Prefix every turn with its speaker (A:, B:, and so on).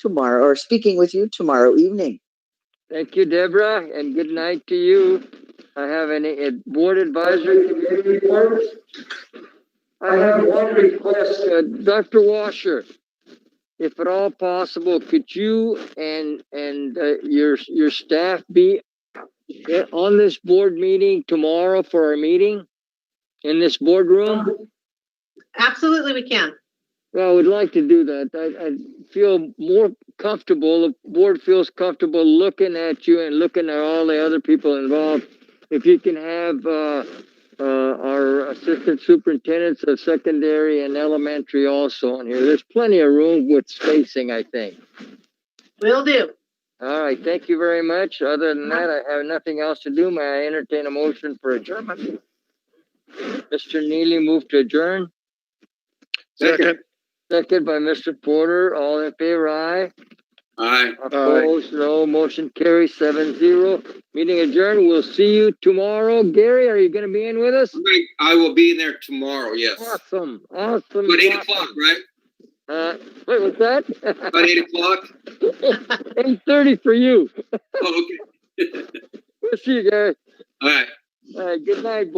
A: tomorrow or speaking with you tomorrow evening.
B: Thank you, Deborah, and good night to you. I have any uh, board advisory committee reports. I have one request, uh, Dr. Washer. If at all possible, could you and, and uh, your, your staff be uh, on this board meeting tomorrow for our meeting? In this boardroom?
C: Absolutely, we can.
B: Well, I would like to do that. I, I feel more comfortable, the board feels comfortable looking at you and looking at all the other people involved. If you can have, uh, uh, our assistant superintendents of secondary and elementary also on here. There's plenty of room with spacing, I think.
C: Will do.
B: All right, thank you very much. Other than that, I have nothing else to do. May I entertain a motion for adjournment? Mr. Neely moved to adjourn.
D: Second.
B: Second by Mr. Porter, all in favor, aye.
D: Aye.
B: Opposed, no, motion carries seven zero. Meeting adjourned, we'll see you tomorrow. Gary, are you gonna be in with us?
D: Great. I will be in there tomorrow, yes.
B: Awesome, awesome.
D: About eight o'clock, right?
B: Uh, wait, what's that?
D: About eight o'clock?
B: Eight thirty for you.
D: Oh, okay.
B: We'll see you, Gary.
D: All right.
B: Uh, good night.